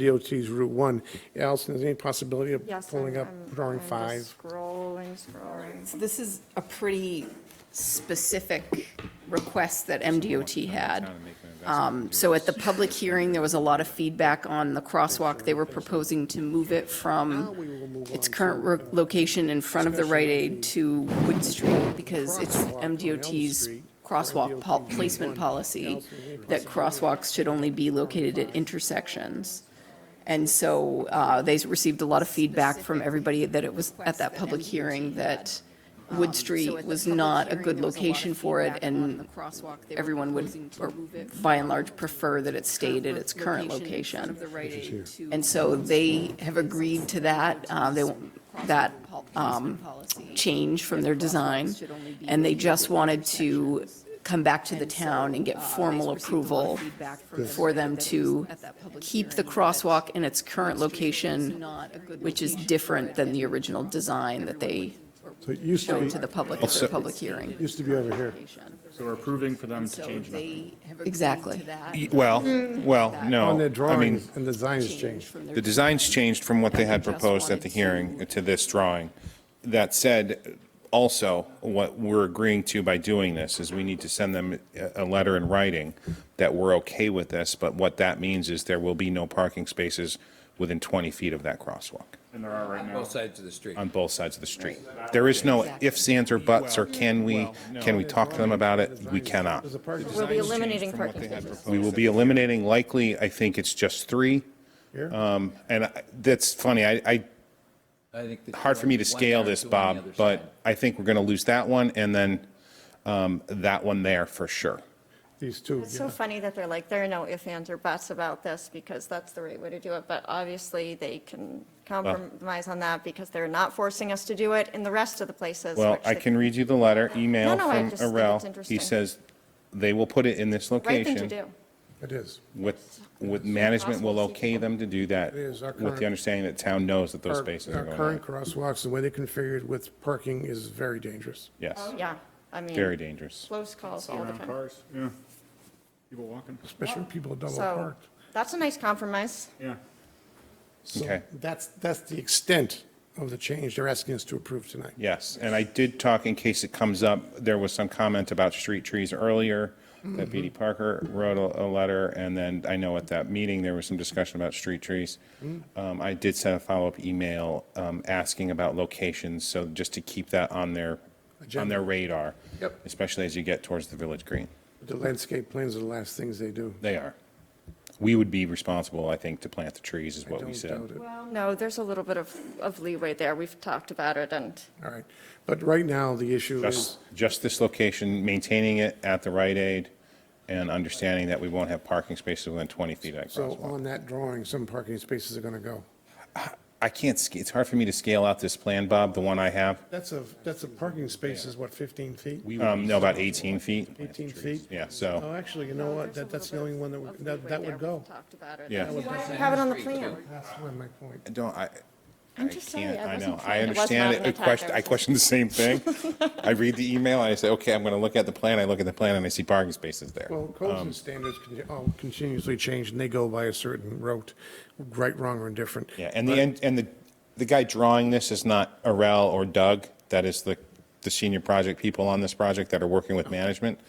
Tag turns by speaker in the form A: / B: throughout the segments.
A: MDOT's Route 1. Allison, is there any possibility of
B: Yes. I'm-
A: pulling up
B: I'm-
A: drawing
B: I'm just
A: five?
B: Scrolling, scrolling.
C: So This is a pretty specific request that MDOT had. Um, So at the public hearing, there was a lot of feedback on the crosswalk. They were proposing to move it
A: Now
C: from
A: we will move
C: its
A: on
C: current
A: to-
C: ro- location in front of the Rite Aid to Wood Street because it's
A: Crosswalk on Elm
C: MDOT's
A: Street,
C: crosswalk po-
A: MDOT
C: placement
A: one.
C: policy that crosswalks should only be located at intersections. And so uh, they received a lot of feedback from everybody that it was, at that public hearing, that Wood Street was not a good location for it, and everyone would, or by and large, prefer that it stayed at its current location. And so they have agreed to that, uh, they, won't- that um, change from their design, and they just wanted to come back to the town and uh, get formal approval for them to keep the crosswalk in its current location, which is different than the original design that they
A: So it used to
C: showed to the
A: be,
C: public at the public hearing.
A: used to be over here.
D: So we're approving for them to change nothing.
C: Exactly.
E: Well, well,
A: On
E: no.
A: their
E: I mean,
A: drawings, and the design has changed.
E: the design's changed from what they had proposed at the hearing to this drawing. That said, also, what we're agreeing to by doing this is we need to send them a, a letter in writing that we're okay with this, but what that means is there will be no parking spaces within 20 feet of that crosswalk
D: And there are right now.
F: Both sides of the street.
E: on both sides of the street. There is no ifs, ands, or buts, or can we, can we talk to them about it? We cannot.
A: There's a parking
B: We'll be eliminating
E: from what
B: parking
E: they had
B: spaces.
E: proposed. We will be eliminating likely, I think it's just three.
A: here.
E: Um, And I- that's funny, I, I,
F: I think that-
E: hard for me to
F: One
E: scale
F: car,
E: this,
F: two on the other
E: Bob,
F: side.
E: but I think we're going to lose that one and then um, that one there for sure.
A: These two,
B: It's so
A: yeah.
B: funny that they're like, there are no ifs, ands, or buts about this, because that's the right way to do it, but obviously, they can compromise on that, because they're not forcing us to do it in the rest of the places.
E: Well,
B: which
E: I
B: they-
E: can read you the letter, email
B: No, no, I
E: from
B: just think it's
E: Arel. He
B: interesting.
E: says, they will put it in this
B: Right thing to
E: location.
B: do.
A: it is.
E: With, with management will okay them to do that
A: It is our
E: with
A: current-
E: the understanding that town knows that those
A: Our
E: spaces
A: our
E: are going
A: current
E: on.
A: crosswalks, the way they're configured with parking is very dangerous.
E: Yes,
B: Oh, Yeah, I mean.
E: very dangerous.
B: Close calls all the
D: Around
B: time.
D: cars, yeah. People walking,
A: Especially when people are double
B: Oh, So,
A: parked.
B: that's a nice compromise.
D: yeah.
A: So
E: Okay.
A: That's, that's the extent of the change they're asking us to approve tonight.
E: Yes, and I did talk, in case it comes up, there was some comment about street trees earlier,
A: Mm-hmm.
E: that BD Parker wrote a, a letter, and then I know at that meeting, there was some discussion about street trees.
A: Mm-hmm.
E: Um, I did send a follow-up email, um, asking about locations, so just to keep that on their, on
A: Agenda.
E: their radar.
A: Yep.
E: Especially as you get towards the Village Green.
A: The landscape plans are the last things they do.
E: They are. We would be responsible, I think, to plant the trees, is
A: I
E: what we
A: don't
E: said.
A: doubt it.
B: Well, no, there's a little bit of, of leeway there. We've talked about it, and
A: All right. But right now, the issue is,
E: Just, just this location, maintaining it at the Rite Aid and understanding that we won't have parking spaces within 20 feet of that
A: so
E: crosswalk.
A: on that drawing, some parking spaces are going to go.
E: I can't, sc- it's hard for me to scale out this plan, Bob, the one I have.
A: That's a, that's a parking space is what, 15 feet?
E: Um, no, about 18 feet.
A: 18 feet?
E: Yeah,
A: Oh,
E: so,
A: actually, you know what? That, that's the only one that, would- that that would go.
B: We've talked about it.
E: yeah.
B: Have it on the plan.
A: That's why my point.
E: I Don't, I, I
B: I'm just sorry,
E: can't,
B: I
E: I
B: wasn't
E: know. I
B: trying- it was
E: understand
B: not
E: it.
B: an
E: I
B: attack,
E: question,
B: I
E: I
B: was
E: question the same thing. I read the email, and I say, okay, I'm going to look at the plan. I look at the plan, and I see parking spaces there.
A: Well, codes
E: Um,
A: and standards con- oh, continuously change, and they go by a certain route, right, wrong, or indifferent.
E: Yeah, and the, and and the, the guy drawing this is not Arel or Doug, that is the, the senior project people on this project that are working with management.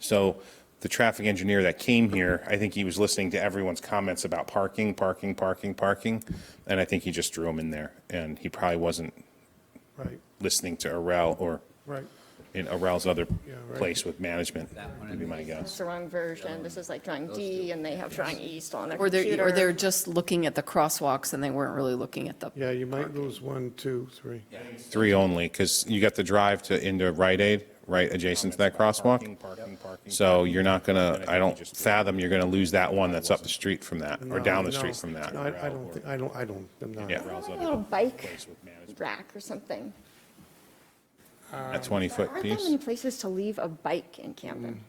E: So the traffic engineer that came here, I think he was listening to everyone's comments about parking, parking, parking, parking, and I think he just drew them in there, and he probably wasn't
A: Right,
E: listening to Arel or
A: right.
E: in Arel's other
A: right.
E: place with management,
F: That one
E: would be my
B: It's
E: guess.
B: the wrong version. This is like drawing D, and they have drawing E still on their
C: Or they're,
B: computer.
C: or they're just looking at the crosswalks and they weren't really looking at the
A: Yeah, you might lose one, two, three.
E: Three only, because you got the drive to, into Rite Aid, right adjacent to that crosswalk.
D: parking, parking.
E: So you're not gonna, I don't fathom you're gonna lose that one that's up the street from that, or down the
A: No,
E: street from that.
A: No, I I don't, thi- I don't, I don't, I'm not.
E: Yeah,
B: A little bike rack or something.
E: a 20-foot
B: Aren't there many
E: piece.
B: places to leave a bike in Camden?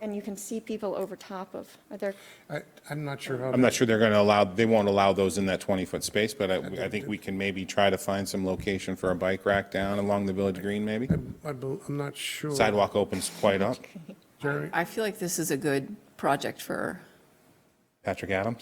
B: And you can see people over top of, are there,
A: I, I'm not sure how.
E: I'm not sure they're gonna allow, they won't allow those in that 20-foot space, but I, I think we can maybe try to find some location for a bike rack down along the Village Green, maybe?
A: I bel- I'm not sure.
E: Sidewalk opens quite up.
A: Jeremy,
C: I feel like this is a good project for
E: Patrick Adams?